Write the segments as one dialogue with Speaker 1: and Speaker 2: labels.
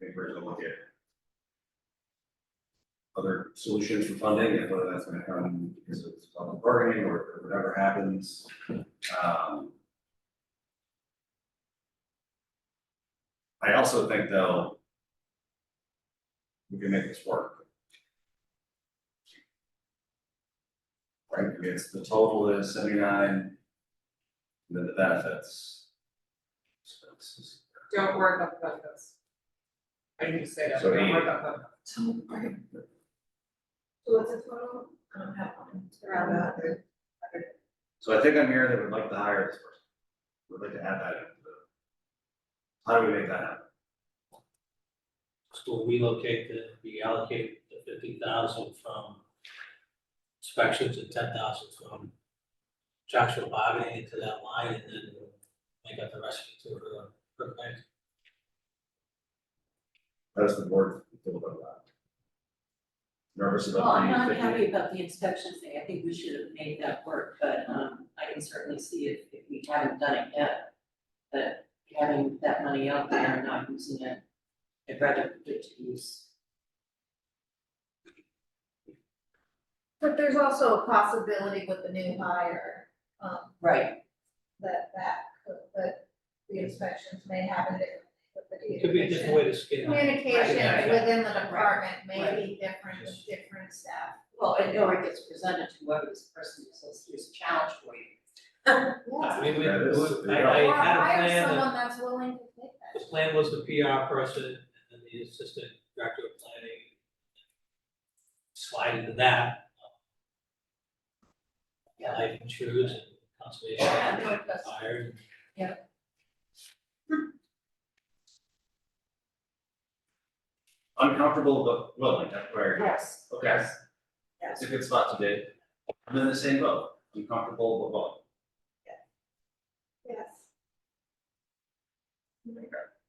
Speaker 1: papers to look at. Other solutions for funding, and whether that's gonna come because of public bargaining or or whatever happens, um. I also think though. We can make this work. Right, it's the total is seventy-nine. and Then the benefits. Expenses.
Speaker 2: Don't worry about the benefits. I need to say that,
Speaker 1: So
Speaker 2: don't
Speaker 1: eight.
Speaker 2: worry about the.
Speaker 3: So what's the total? I don't have one. Around that.
Speaker 1: So I think I'm hearing that we'd like to hire this person. We'd like to add that into the. How do we make that happen?
Speaker 4: So we locate the, we allocate the fifty thousand from inspections and ten thousand from contractual bargaining into that line and then make up the rest to her, her bank.
Speaker 1: How does the board feel about that? Nervous
Speaker 3: Well,
Speaker 1: about
Speaker 3: I'm
Speaker 1: the
Speaker 3: not
Speaker 1: fifty?
Speaker 3: happy about the inspections thing, I think we should have made that work, but, um, I can certainly see if, if we haven't done it yet. That having that money out there and not using it, I'd rather put it to use.
Speaker 5: But there's also a possibility with the new hire, um,
Speaker 3: Right,
Speaker 5: that that, could- that the inspections may happen differently with the
Speaker 4: It could be a different way to skin it.
Speaker 5: Communication
Speaker 4: Right.
Speaker 5: within the department may
Speaker 3: Right.
Speaker 5: be different, with different staff.
Speaker 3: well, and or it gets presented to whoever this person is, so here's a challenge for you.
Speaker 4: I mean, we,
Speaker 1: That is-
Speaker 4: I, I
Speaker 5: Or
Speaker 4: had a
Speaker 5: hire
Speaker 4: plan, that-
Speaker 5: someone that's willing to take
Speaker 4: the
Speaker 5: that.
Speaker 4: plan was the PR person and then the assistant director of planning. Slide into that.
Speaker 3: Yeah.
Speaker 4: Life insurance and
Speaker 3: Yeah,
Speaker 4: conservation,
Speaker 3: no, that's-
Speaker 4: fire.
Speaker 1: Uncomfortable but willing, that's where,
Speaker 3: Yes.
Speaker 1: okay, it's a good spot to be. I'm in the same boat, uncomfortable but willing.
Speaker 5: Yes.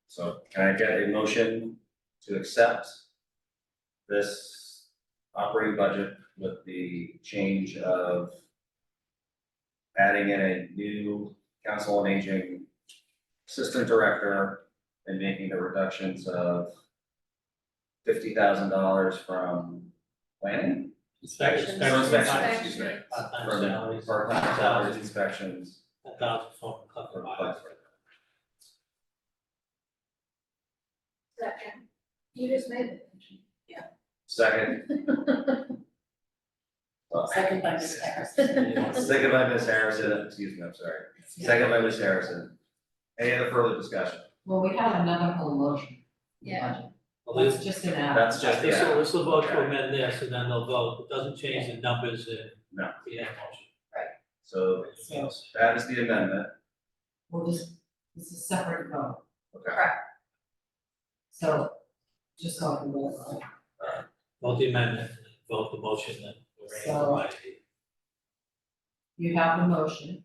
Speaker 1: So can I get a motion to accept this operating budget with the change of adding in a new council and aging assistant director and making the reductions of fifty thousand dollars from planning?
Speaker 4: Inspection,
Speaker 1: From
Speaker 4: inspection,
Speaker 1: excuse me,
Speaker 4: part-time
Speaker 1: from
Speaker 4: salaries.
Speaker 1: part-time salaries, inspections.
Speaker 4: A thousand for collective bargaining.
Speaker 5: Second, you just made the motion.
Speaker 1: Second. Well,
Speaker 3: Second by Ms. Harris.
Speaker 1: Second by Ms. Harrison, excuse me, I'm sorry. Second by Ms. Harrison. Any other further discussion?
Speaker 6: Well, we have another whole motion.
Speaker 5: Yeah.
Speaker 4: Well,
Speaker 6: That's
Speaker 4: this,
Speaker 6: just an add.
Speaker 1: That's just,
Speaker 4: this
Speaker 1: yeah,
Speaker 4: will, this will vote to amend this, and then they'll vote, it doesn't change the numbers in
Speaker 1: No.
Speaker 4: the end motion.
Speaker 1: so that is the amendment.
Speaker 6: We'll just, this is separate vote,
Speaker 1: Okay.
Speaker 6: so just go through it.
Speaker 4: Vote the amendment, vote the motion that
Speaker 6: So-
Speaker 4: we're ready
Speaker 6: You have the motion.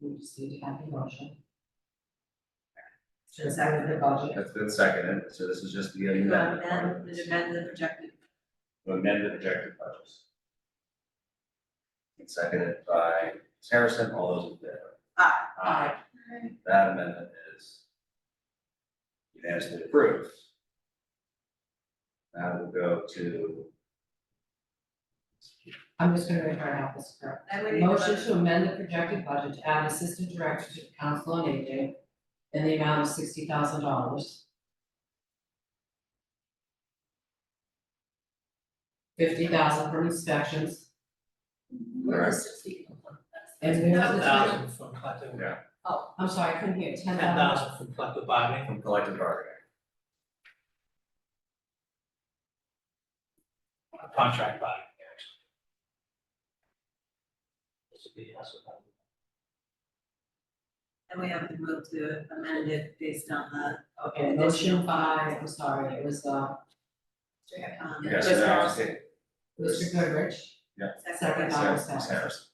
Speaker 6: We just need to have the motion. To second the budget.
Speaker 1: That's been seconded, so this is just the
Speaker 3: You
Speaker 1: amendment.
Speaker 3: amend, amend the projected
Speaker 1: To amend the projected budgets. And Seconded by Ms. Harrison, all those in favor?
Speaker 3: Aye.
Speaker 1: Aye. That amendment is unanimously approved. Now we'll go to
Speaker 6: I'm just gonna read our office correct.
Speaker 3: I would need a
Speaker 6: Motion to amend the projected budget to add assistant director to the council on aging in the amount of sixty thousand dollars. Fifty thousand from inspections,
Speaker 3: Where is sixty?
Speaker 6: and we have
Speaker 4: on.
Speaker 6: the
Speaker 4: Thousand from collective,
Speaker 1: Yeah.
Speaker 6: Oh, I'm sorry, I couldn't hear, ten
Speaker 4: ten
Speaker 6: thousand.
Speaker 4: thousand from collective bargaining,
Speaker 1: from collective bargaining.
Speaker 4: uh, contract bargaining, actually. This would be, that's what I would-
Speaker 3: And we have to move to amend it based on the,
Speaker 6: Okay, motion by, I'm sorry, it was, uh,
Speaker 3: um.
Speaker 1: Okay, so now it's hit-
Speaker 6: Mr. Goodrich, second by
Speaker 1: Ms.
Speaker 6: Ms. Harris,
Speaker 1: Harrison.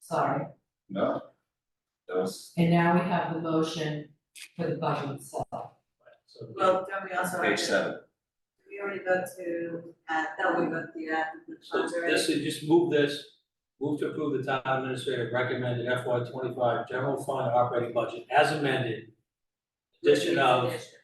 Speaker 6: sorry.
Speaker 1: No? That was
Speaker 6: And now we have the motion for the budget itself.
Speaker 4: so we-
Speaker 3: Well, don't we also have to?
Speaker 1: page seven.
Speaker 3: We already go to, uh, that we go to the, uh, the
Speaker 4: So
Speaker 3: funds already.
Speaker 4: this is, just move this, move to approve the town administrator recommended FY twenty-five general fund operating budget as amended. Addition of
Speaker 3: Addition.